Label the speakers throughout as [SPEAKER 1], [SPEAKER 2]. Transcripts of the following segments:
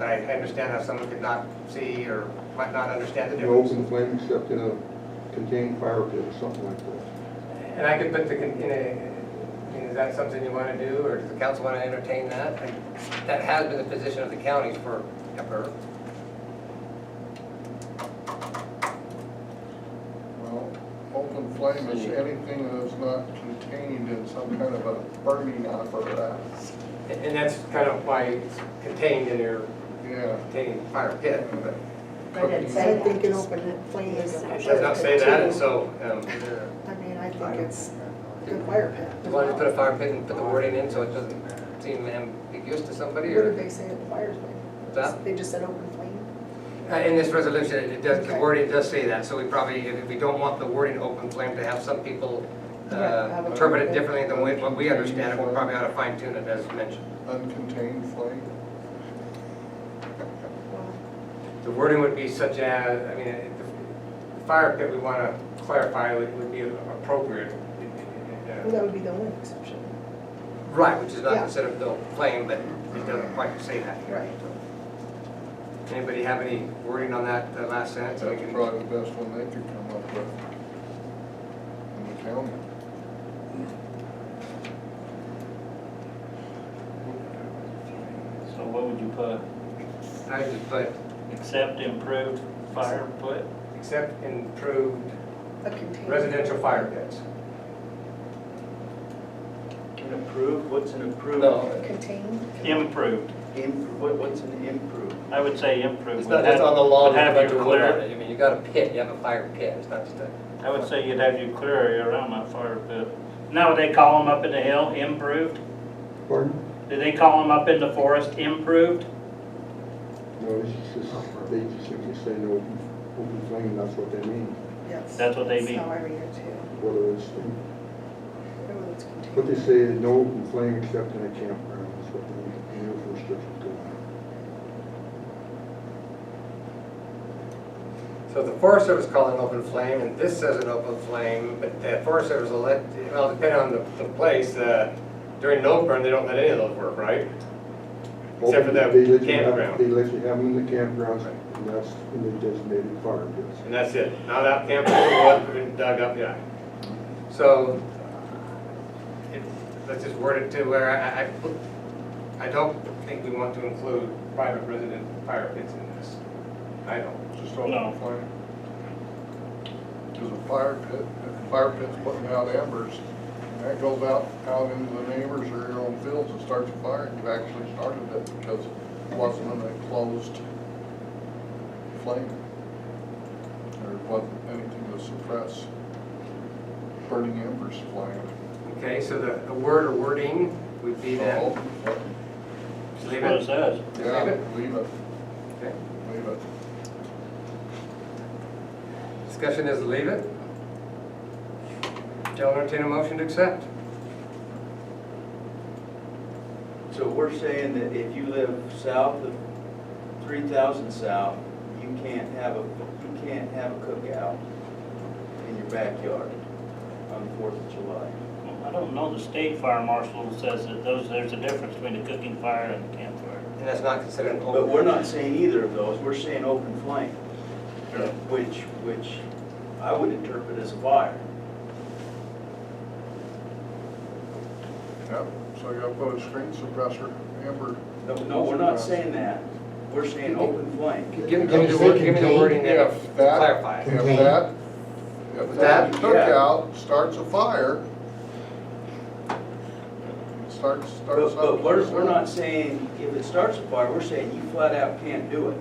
[SPEAKER 1] And I understand how someone could not see or might not understand the
[SPEAKER 2] No
[SPEAKER 1] difference.
[SPEAKER 2] open flame except in a contained fire pit or something like that.
[SPEAKER 1] And I could put the, con- in a, I mean, is that something you want to do, or does the council want to entertain that? And That has been the position of the counties for ever.
[SPEAKER 3] Well, open flame is anything that's not contained in some kind of a burning apparatus.
[SPEAKER 1] And and that's kind of why it's contained in your
[SPEAKER 3] Yeah.
[SPEAKER 1] contained fire pit. but
[SPEAKER 4] But it's
[SPEAKER 5] I
[SPEAKER 4] saying
[SPEAKER 5] think an
[SPEAKER 4] that.
[SPEAKER 5] open flame is.
[SPEAKER 1] It does not say that, and so, um,
[SPEAKER 5] I mean, I think it's a good fire
[SPEAKER 1] as
[SPEAKER 5] pit.
[SPEAKER 1] long as you put a fire pit and put the wording in, so it doesn't seem ambiguous to somebody,
[SPEAKER 5] What did
[SPEAKER 1] or
[SPEAKER 5] they say at the fire thing?
[SPEAKER 1] that?
[SPEAKER 5] They just said open flame?
[SPEAKER 1] Uh, In this resolution, it does, the wording does say that, so we probably, if we don't want the wording open flame to have some people
[SPEAKER 5] Yeah,
[SPEAKER 1] uh,
[SPEAKER 5] have it-
[SPEAKER 1] interpret it differently than we- what we understand it, we probably ought to fine tune it as mentioned.
[SPEAKER 3] Uncontained flame.
[SPEAKER 5] Well,
[SPEAKER 1] The wording would be such as, I mean, it- the fire pit, we want to clarify, would would be appropriate. uh,
[SPEAKER 5] well, that would be the only exception.
[SPEAKER 1] Right, which is not
[SPEAKER 5] Yeah.
[SPEAKER 1] considered the flame, but it doesn't quite say that here.
[SPEAKER 5] Right.
[SPEAKER 1] Anybody have any wording on that uh, last sentence? that
[SPEAKER 3] That's
[SPEAKER 1] we can-
[SPEAKER 3] probably the best one they could come up with in the county.
[SPEAKER 6] So what would you put?
[SPEAKER 1] I would just put,
[SPEAKER 6] Accept improved fire put?
[SPEAKER 1] except improved
[SPEAKER 5] A container.
[SPEAKER 1] residential fire pits.
[SPEAKER 7] An approved, what's an approved?
[SPEAKER 5] A contained.
[SPEAKER 6] Improved.
[SPEAKER 7] Im- what- What's an improved?
[SPEAKER 6] I would say improved.
[SPEAKER 7] It's not just on the
[SPEAKER 6] law.
[SPEAKER 7] lawn,
[SPEAKER 6] Would have
[SPEAKER 7] but
[SPEAKER 6] you
[SPEAKER 7] to
[SPEAKER 6] clear,
[SPEAKER 1] I mean, you got a pit, you have a fire pit, it's not just a.
[SPEAKER 6] I would say you'd have you clear area around that fire pit. Now, they call them up in the hill, improved?
[SPEAKER 2] Pardon?
[SPEAKER 6] Do they call them up in the forest, improved?
[SPEAKER 2] No, it's just, they just simply say no open, open flame, that's what they mean,
[SPEAKER 5] Yes.
[SPEAKER 6] That's what they
[SPEAKER 5] That's
[SPEAKER 6] mean.
[SPEAKER 5] how I read it too.
[SPEAKER 2] whether it's,
[SPEAKER 5] Whether it's contained.
[SPEAKER 2] what they say is no open flame except in a campground, that's what they mean, no restrictions go on.
[SPEAKER 1] So the Forest Service called an open flame, and this says an open flame, but the Forest Service will let, well, depending on the, the place, uh, during no burn, they don't let any of those work, right? Except for that
[SPEAKER 2] They let you have-
[SPEAKER 1] campground.
[SPEAKER 2] They let you have them in the campgrounds, and that's in the designated fire pits.
[SPEAKER 1] And that's it, not out camping, what, been dug up, yeah. So, it- let's just word it to where I, I, I don't think we want to include private resident fire pits in this. I don't.
[SPEAKER 3] Just open
[SPEAKER 6] No.
[SPEAKER 3] flame. Because a fire pit, a fire pit's putting out embers. That goes out, out into the neighbors or your own fields and starts a fire. You actually started it because it wasn't an enclosed flame. There wasn't anything to suppress burning embers flame.
[SPEAKER 1] Okay, so the, the word or wording would be that.
[SPEAKER 7] Oh,
[SPEAKER 3] So, open flame.
[SPEAKER 6] That's
[SPEAKER 1] Leave
[SPEAKER 6] what it
[SPEAKER 1] it.
[SPEAKER 6] says.
[SPEAKER 3] Oh, Yeah,
[SPEAKER 1] Leave it.
[SPEAKER 3] leave it,
[SPEAKER 1] Okay.
[SPEAKER 3] leave it.
[SPEAKER 1] Discussion is leave it. I'll entertain a motion to accept.
[SPEAKER 7] So we're saying that if you live south of three thousand south, you can't have a, you can't have a cookout in your backyard on the Fourth of July.
[SPEAKER 6] I don't know, the state fire marshal says that those, there's a difference between a cooking fire and a campfire.
[SPEAKER 1] And that's not considered an open.
[SPEAKER 7] But we're not saying either of those, we're saying open flame,
[SPEAKER 6] Sure.
[SPEAKER 7] which, which I would interpret as a fire.
[SPEAKER 3] Yep, so you gotta put a screen suppressor, amber.
[SPEAKER 7] No, no, we're not saying that, we're saying open flame.
[SPEAKER 1] Give me give me the word, give me the wording there,
[SPEAKER 3] If that-
[SPEAKER 1] clarify. it.
[SPEAKER 3] If that, if that
[SPEAKER 7] That, yeah.
[SPEAKER 3] cookout starts a fire, starts, starts
[SPEAKER 7] But,
[SPEAKER 3] up.
[SPEAKER 7] but we're, we're not saying, if it starts a fire, we're saying you flat out can't do it.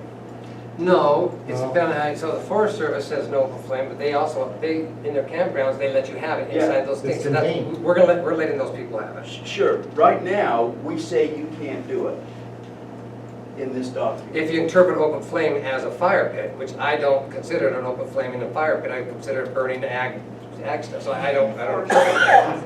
[SPEAKER 1] No, it's
[SPEAKER 2] No.
[SPEAKER 1] been, I- so the Forest Service says no open flame, but they also, they, in their campgrounds, they let you have it
[SPEAKER 7] Yeah,
[SPEAKER 1] inside those things. So that's- We're gonna let, we're letting those people have it.
[SPEAKER 7] Sure, right now, we say you can't do it in this document.
[SPEAKER 1] If you interpret open flame as a fire pit, which I don't consider it an open flame in a fire pit, I consider it burning ag, ag stuff, so I don't, I don't.
[SPEAKER 7] Uh,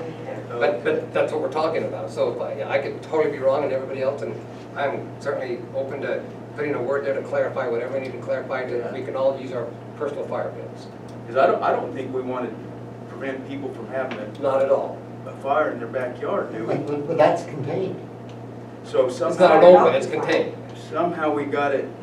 [SPEAKER 1] But, but that's what we're talking about, so if I- yeah, I could totally be wrong and everybody else, and I'm certainly open to putting a word there to clarify whatever we need to clarify, that we can all use our personal fire pits.
[SPEAKER 7] Because I don't, I don't think we want to prevent people from having a,
[SPEAKER 1] Not at all.
[SPEAKER 7] a fire in their backyard, do we?
[SPEAKER 8] But but that's contained.
[SPEAKER 7] So somehow.
[SPEAKER 1] It's not an open, it's contained.
[SPEAKER 7] somehow we got it